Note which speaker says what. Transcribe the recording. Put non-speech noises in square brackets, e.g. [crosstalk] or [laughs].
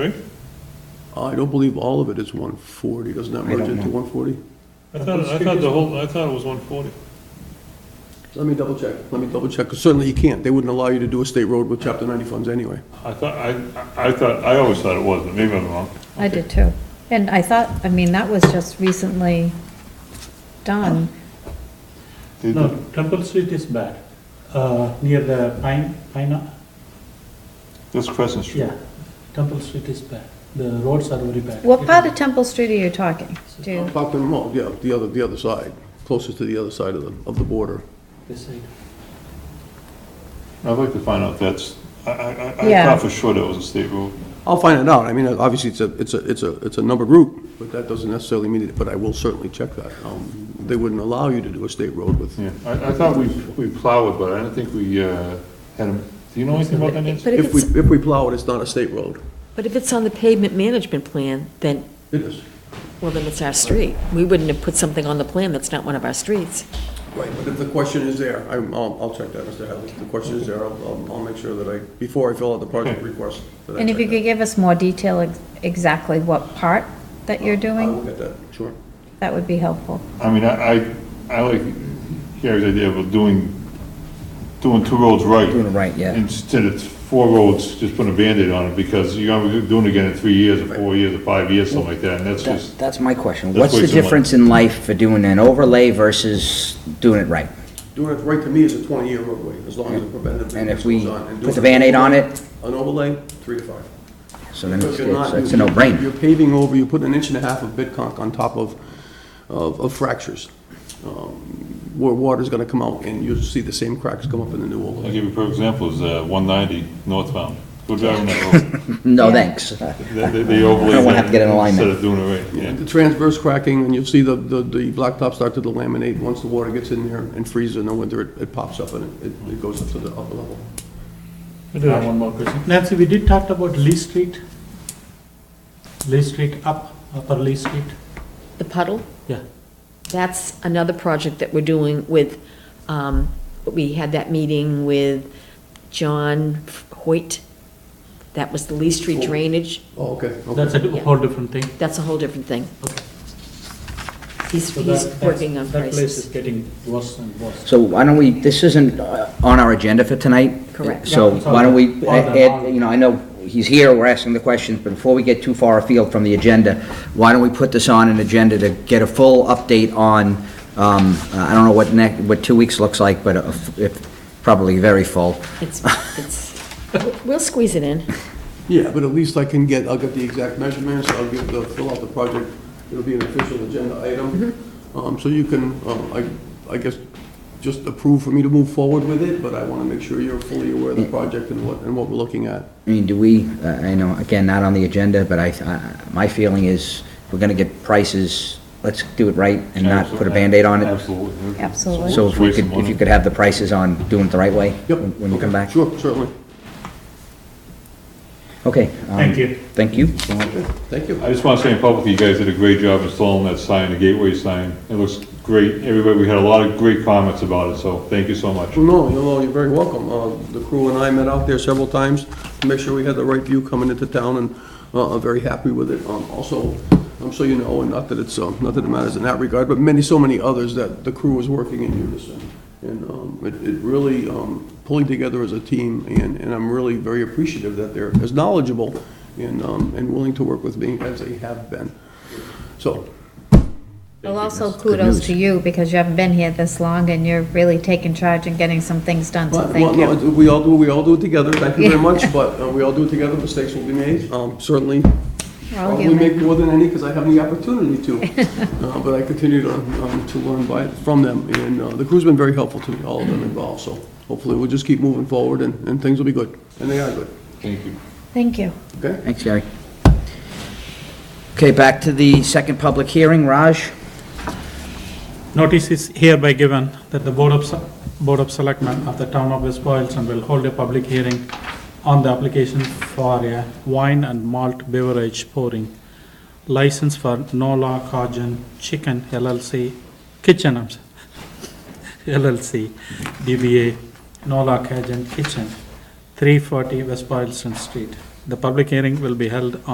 Speaker 1: I don't believe all of it is 140, doesn't that
Speaker 2: I don't
Speaker 1: merge into
Speaker 2: know.
Speaker 1: 140?
Speaker 3: I thought, I thought the whole, I thought it was one forty.
Speaker 1: Let me double check, let me double check, 'cause certainly you can't, they wouldn't allow you to do a state road with Chapter 90 funds anyway.
Speaker 3: I thought, I, I thought, I always thought it was, but maybe I'm wrong.
Speaker 4: I did too. And I thought, I mean, that was just recently done.
Speaker 3: Did
Speaker 5: No, Temple Street is bad, uh, near the Pine, Pine,
Speaker 3: This Crescent Street.
Speaker 5: yeah, Temple Street is bad, the roads are very bad.
Speaker 4: What part of Temple Street are you talking? Do you-
Speaker 1: Parkland Mall, yeah, the other, the other side, closest to the other side of the, of the border.
Speaker 5: This side.
Speaker 3: I'd like to find out if that's, I, I, I- I
Speaker 4: Yeah.
Speaker 3: thought for sure that was a state road.
Speaker 1: I'll find it out, I mean, obviously, it's a, it's a, it's a, it's a numbered route, but that doesn't necessarily mean it, but I will certainly check that. Um, They wouldn't allow you to do a state road with,
Speaker 3: Yeah, I, I thought we, we plowed, but I do not think we, uh, had a, do you know anything about that, Nancy?
Speaker 6: But if
Speaker 1: if we,
Speaker 6: it's,
Speaker 1: if we plow it, it's not a state road.
Speaker 6: but if it's on the pavement management plan, then,
Speaker 1: It is.
Speaker 6: well, then it's our street. We wouldn't have put something on the plan that's not one of our streets.
Speaker 1: Right, but if the question is there, I'm, I'll, I'll check that, Mr. Hadley. If the question is there, I'll, I'll- I'll make sure that I, before I fill out the project request. that I
Speaker 4: And if you
Speaker 1: check
Speaker 4: could give us more detail ex- exactly what part that you're
Speaker 1: that. I will
Speaker 4: doing,
Speaker 1: get that, sure.
Speaker 4: that would be helpful.
Speaker 3: I mean, I, I, I like Gary's idea of doing, doing two roads right.
Speaker 2: Doing it right, yeah.
Speaker 3: Instead of four roads, just putting a Band-Aid on it, because you're gonna be doing it again in three years, or four years, or five years, something like that, and that's
Speaker 2: That-
Speaker 3: just,
Speaker 2: That's my question.
Speaker 3: That's
Speaker 2: What's the
Speaker 3: wasting money.
Speaker 2: difference in life for doing an overlay versus doing it right?
Speaker 1: Doing it right to me is a twenty-year roadway, as long as the preventative
Speaker 2: And
Speaker 1: maintenance
Speaker 2: if we
Speaker 1: goes on. And
Speaker 2: put the
Speaker 1: doing
Speaker 2: Band-Aid on it,
Speaker 1: An overlay, three to five.
Speaker 2: so then it's
Speaker 1: Because you're
Speaker 2: it's-
Speaker 1: not-
Speaker 2: it's a
Speaker 1: You're
Speaker 2: no-brainer.
Speaker 1: paving over, you put an inch and a half of bitconk on top of, of, of fractures, um, where water's gonna come out, and you'll see the same cracks come up in the new
Speaker 3: I'll
Speaker 1: overlay.
Speaker 3: give you a perfect example, is, uh, one ninety northbound, go driving that [laughs] road.
Speaker 2: No,
Speaker 4: Yeah.
Speaker 2: thanks.
Speaker 3: They- They, they overlay.
Speaker 2: I don't wanna have to get in
Speaker 3: that
Speaker 2: alignment.
Speaker 3: Instead of doing it right, yeah.
Speaker 1: The transverse cracking, and you'll see the, the, the blacktop start to delaminate, once the water gets in there and freezes in the winter, it, it pops up and it, it goes up to the upper level.
Speaker 5: I have one more question. Nancy, we did talk about Lee Street, Lee Street up, Upper Lee Street,
Speaker 6: The puddle,
Speaker 5: yeah.
Speaker 6: that's another project that we're doing with, um, we had that meeting with John Hoyt. That was the Lee Street drainage.
Speaker 1: Oh, okay,
Speaker 5: That's
Speaker 1: okay.
Speaker 5: a di- whole different thing.
Speaker 6: That's a whole different thing.
Speaker 5: Okay.
Speaker 6: He's,
Speaker 5: So that-
Speaker 6: he's
Speaker 5: that's-
Speaker 6: working on
Speaker 5: That place is
Speaker 6: prices.
Speaker 5: getting worse and worse.
Speaker 2: So why don't we, this isn't uh, on our agenda for tonight.
Speaker 6: Correct.
Speaker 2: So
Speaker 5: Yeah, it's on
Speaker 2: why don't we,
Speaker 5: the- on the-
Speaker 2: add- you know, I know he's here, we're asking the questions, but before we get too far afield from the agenda, why don't we put this on an agenda to get a full update on, um, I don't know what next, what two weeks looks like, but a f- if- probably very full.
Speaker 6: It's, it's, we'll squeeze it in.
Speaker 1: Yeah, but at least I can get, I'll get the exact measurements, I'll give the, fill out the project, it'll be an official agenda item.
Speaker 2: Mm-hmm.
Speaker 1: Um, so you can, um, I, I guess, just approve for me to move forward with it, but I wanna make sure you're fully aware of
Speaker 2: Mm.
Speaker 1: the project and what, and what we're looking at.
Speaker 2: I mean, do we, uh, I know, again, not on the agenda, but I, I- my feeling is, we're gonna get prices, let's do it right and not put a Band-Aid on it.
Speaker 3: Absolutely.
Speaker 4: Absolutely.
Speaker 2: So if we
Speaker 3: Waste of
Speaker 2: could, if
Speaker 3: money.
Speaker 2: you could have the prices on doing it the right way?
Speaker 1: Yep.
Speaker 2: when- When you come
Speaker 1: okay,
Speaker 2: back?
Speaker 1: Sure, certainly.
Speaker 2: Okay. um,
Speaker 5: Thank you.
Speaker 2: Thank you.
Speaker 1: Thank you.
Speaker 3: I just want to say in public, you guys did a great job installing that sign, the gateway sign. It looks great. Everybody, we had a lot of great comments about it, so thank you so much.
Speaker 1: Well, no, you know, you're very welcome. Uh, The crew and I met out there several times to make sure we had the right view coming into town, and uh, I'm very happy with it. Um, Also, I'm so you know, and not that it's, um, not that it matters in that regard, but many, so many others that the crew was working in unison. And um, it it really, um, pulling together as a team, and and I'm really very appreciative that they're as knowledgeable and um, and willing to work with me as they have been. So,
Speaker 4: Well, also kudos to you because you haven't been here this long and you're really taking charge and getting some things done, so
Speaker 1: Well,
Speaker 4: thank
Speaker 1: no,
Speaker 4: you.
Speaker 1: We all do, we all do it together, thank you very
Speaker 4: Yeah.
Speaker 1: much, but uh, we all do it together, mistakes will be made, Um, certainly.
Speaker 4: We're all
Speaker 1: Probably
Speaker 4: human.
Speaker 1: uh, make more than any, because I have the opportunity to, Uh, but I continue to, um, to learn by, from them, and uh, the crew's been very helpful to me, all of them involved, so hopefully we'll just keep moving forward, and, and things will be good, and they are good,
Speaker 3: Thank you.
Speaker 4: Thank you.
Speaker 1: okay?
Speaker 2: Thanks, Gary. Okay, back to the second public hearing. Raj?
Speaker 5: Notice is hereby given that the Board of, Se- Board of Selectmen of the Town of West Boylston will hold a public hearing on the application for a wine and malt beverage pouring license for Nola Cajun Chicken LLC, Kitchen, I'm sorry, [laughs] LLC, DBA Nola Cajun Kitchen, 340 West Boylston Street. The public hearing will be held on.